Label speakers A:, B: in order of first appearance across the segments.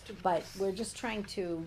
A: to-
B: but we're just trying to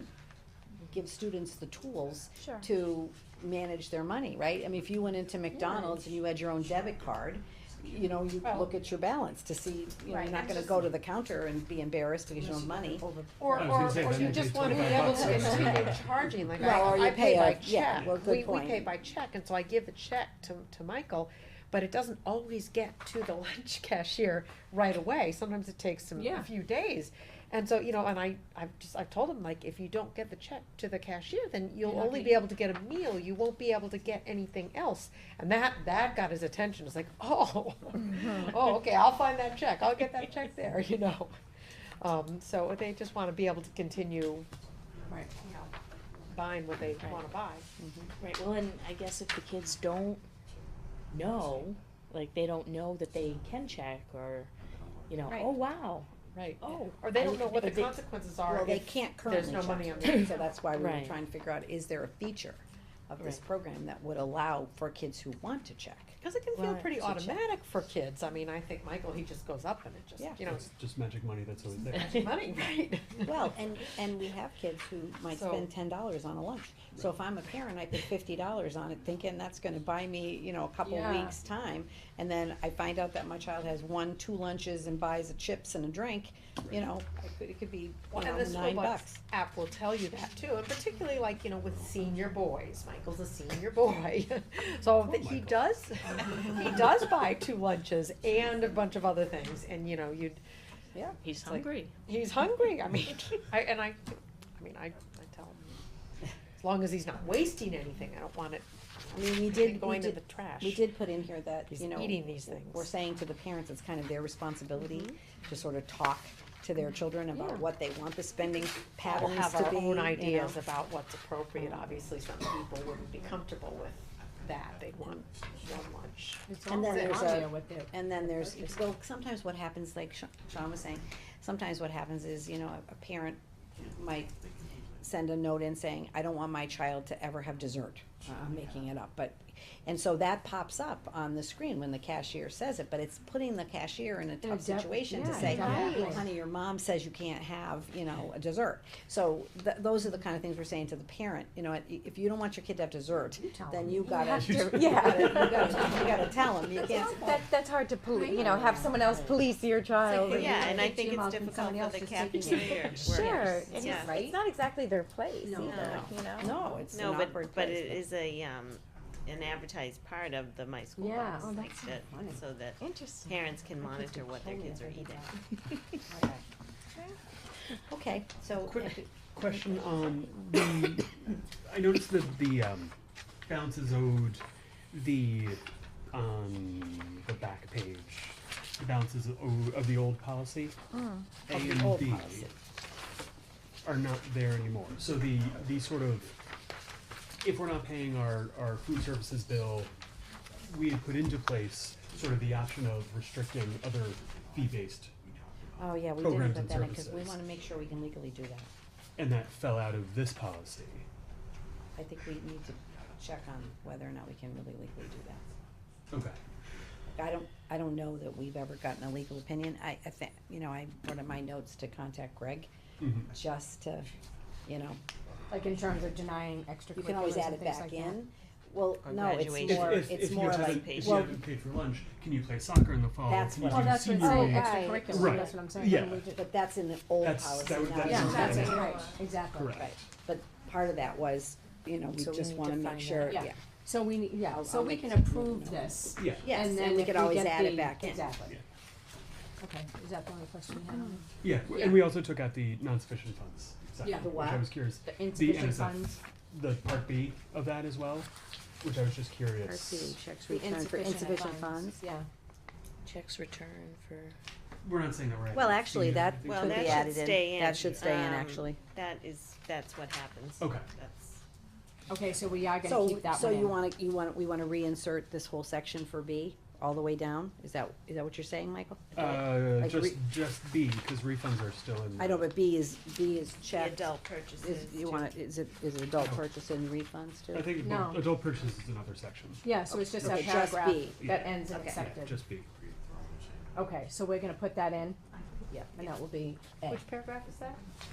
B: give students the tools
A: Sure.
B: to manage their money, right? I mean, if you went into McDonald's and you had your own debit card, you know, you
A: Well-
B: look at your balance to see, you know,
A: Right,
B: you're not
A: and
B: gonna
A: just-
B: go to the counter and be embarrassed because you don't have money.
C: I
A: Or,
C: was
A: or,
C: gonna say,
A: or
C: then
A: you
C: they
A: just
C: pay
A: wanna be
C: 25
A: able to
C: bucks or
A: continue
C: something.
A: charging, like
B: Well, or
A: I, I
B: you pay
A: pay by
B: a- yeah,
A: check.
B: well, good
A: We, we
B: point.
A: pay by check, and so I give the check to, to Michael, but it doesn't always get to the lunch cashier right away, sometimes it takes some, a
D: Yeah.
A: few days. And so, you know, and I, I've just, I've told him, like, if you don't get the check to the cashier, then you'll
D: You're not
A: only
D: gonna
A: be able to get a meal, you won't be able to get anything else. And that, that got his attention, it's like, oh,
D: Mm-hmm.
A: oh, okay, I'll find that check, I'll get that check there, you know? Um, so they just wanna be able to continue
D: Right,
A: you know, buying what they wanna buy.
D: right, well, and I guess if the kids don't know, like, they don't know that they can check, or, you know,
A: Right.
D: oh, wow,
A: Right.
D: oh.
A: Or they don't
D: I-
A: know what the
D: or they-
A: consequences are
B: Well, they
A: if
B: can't
A: there's
B: currently
A: no money
B: check,
A: on the.
B: so that's why we were
D: Right.
B: trying to figure out, is there a feature of this
D: Right.
B: program that would allow for kids who want to check?
A: Cause it can feel
D: Well,
A: pretty
D: it's a check.
A: automatic for kids, I mean, I think Michael, he just goes up and it
B: Yeah.
A: just, you know,
C: It's just magic money that's always there.
A: it's money, right?
B: Well, and, and we have kids who might
A: So-
B: spend ten dollars on a lunch. So if I'm a parent, I put fifty dollars on it thinking that's gonna buy me, you know, a couple
A: Yeah.
B: weeks' time. And then I find out that my child has one, two lunches and buys a chips and a drink, you know, it could, it could be, you
A: Well,
B: know,
A: and the school
B: nine
A: bus
B: bucks.
A: app will tell you that too, and particularly like, you know, with senior boys, Michael's a senior boy. So that he
C: Michael.
A: does, he does buy two lunches and a bunch of other things, and you know, you'd,
B: Yeah,
D: He's
A: like-
D: hungry.
A: He's hungry. I mean, I, and I, I mean, I, I tell him as long as he's not wasting anything, I don't want it
B: I mean, we did, we
A: going to
B: did,
A: the trash.
B: we did put in here that,
A: He's
B: you know,
A: eating these things. Mm-hmm.
B: we're saying to the parents, it's kind of their responsibility to sort of talk to their children
A: Yeah.
B: about what they want the spending
A: We'll
B: patterns to be,
A: have our
B: you
A: own
B: know.
A: ideas about what's appropriate. Obviously, some people wouldn't be comfortable with that. They'd want one lunch.
B: And then there's a,
D: what they're.
B: and then there's, well, sometimes what happens, like Sha- Sean was saying, sometimes what happens is, you know, a- a parent might send a note in saying, I don't want my child to ever have dessert. Uh, I'm making it up, but, and so that pops up on the screen when the cashier says it, but it's putting the cashier in a tough
E: dep-
B: situation to
E: yeah,
B: say,
E: exactly.
B: honey, your mom says you can't have, you know, a dessert. So th- those are the kind of things we're saying to the parent, you know, i- if you don't want your kid to have dessert,
E: tell
B: then
E: them.
B: you gotta,
E: have
B: you
E: to-
B: gotta, you
E: yeah.
B: gotta, you gotta tell them, you can't,
E: That, that's hard to police, you know, have someone else police your child. and-
F: Oh, Yeah, and I think
E: Jim
F: it's
E: Osmond,
F: difficult
E: somebody
F: for
E: else
F: the
E: is taking
F: cafeteria.
E: Sure, and
F: Yeah.
E: it's, it's not exactly their place
B: No.
E: either, you know?
B: no, it's an
F: No, but,
B: awkward
F: but
B: place,
F: it is a, um, an advertised part of the My School
E: Yeah,
F: Bus,
E: oh,
F: like
E: that's
F: that,
E: funny.
F: so that
E: Interesting.
F: parents can
E: My kids
F: monitor
E: would
F: what their
E: kill me
F: kids
E: if
F: are
E: I did
F: eating.
B: Okay, so,
C: Quick question on the, I noticed that the um, balances owed, the, on the back page, the balances of, of the old policy.
A: Hmm.
C: A
B: Of the
C: and
B: old
C: B
B: policy.
C: Are not there anymore, so the, the sort of, if we're not paying our, our food services bill, we had put into place sort of the option of restricting other fee-based
B: oh yeah, we didn't
C: Programs
B: put
C: and
B: that in, cause we
C: services.
B: wanna make sure we can legally do that.
C: and that fell out of this policy.
B: I think we need to check on whether or not we can really legally do that.
C: Okay.
B: I don't, I don't know that we've ever gotten a legal opinion, I, I think, you know, I, one of my notes to contact Greg,
C: Mhm.
B: just to, you know,
E: Like in terms of denying extra
B: you can always add it back in. Well,
F: Or
B: no, it's
F: graduation.
B: more,
C: If, if, if
B: it's
C: you
B: more
C: haven't,
B: like,
C: if you
B: well,
C: haven't paid for lunch, can you play soccer in the fall?
B: That's
C: Can you
B: what
C: do
B: I'm-
E: Oh, that's what,
C: senior
E: oh,
C: week?
E: extracurricular,
C: Right.
E: that's what I'm saying.
C: Yeah.
E: and we just-
B: but that's in the old
C: That's-
B: policy,
C: that would-
B: not
C: that
B: in
E: Yeah,
B: the
C: is-
B: new.
E: that's
C: Yeah.
E: right, exactly.
C: Correct.
B: Right, but part of that was, you know, we
D: So we
B: just
D: need
B: wanna
D: to
B: make
D: find
B: sure,
D: out.
B: yeah.
E: Yeah, so we, need- yeah,
B: I'll-
E: so
B: I'll
E: we
B: make
E: can
B: some
E: approve
B: notes.
E: this.
C: Yeah.
B: Yes,
E: And
B: and
E: then
B: we
E: if
B: could
E: we
B: always
E: get
B: add it
E: the-
B: back in.
E: Exactly.
C: Yeah.
E: Okay, is that the only question you have?
C: Yeah. and we also took out the non-sufficient funds. section,
E: Yeah. The
C: which
B: what?
C: I was curious.
E: The insufficient
C: NSF,
E: funds?
C: The part B of that as well, which I was just curious.
B: checks
E: The Yeah.
D: Checks return for.
C: We're not saying that we're.
B: Well,
C: adding
B: actually,
C: senior,
B: that
C: I think
F: Well,
B: could
C: so.
B: be
F: that should
B: added
F: stay
B: in,
F: in.
B: that should stay in,
F: Um,
B: actually.
F: That is, that's what happens.
C: Okay.
F: That's,
E: Okay, so we are gonna
B: So,
E: keep that one
B: so you
E: in.
B: wanna, you want, we wanna reinsert this whole section for B, all the way down? Is that, is that what you're saying, Michael?
C: Uh,
B: Like
C: just
B: re-
C: just B because refunds are still in.
B: I know, but B is, B is
F: the
B: checked.
F: adult purchases.
B: Is, you
F: too.
B: wanna, is it, is it adult
C: No.
B: purchase and refunds too?
C: I think
E: No.
C: adult purchases is another section.
E: Yeah, so it's just that
B: Okay, just
E: paragraph
B: B.
E: that ends in
B: Okay.
C: Yeah,
E: accepted.
C: just B.
E: Okay, so we're gonna put that in,
B: Yeah.
E: and that will be A.
A: Which paragraph is that?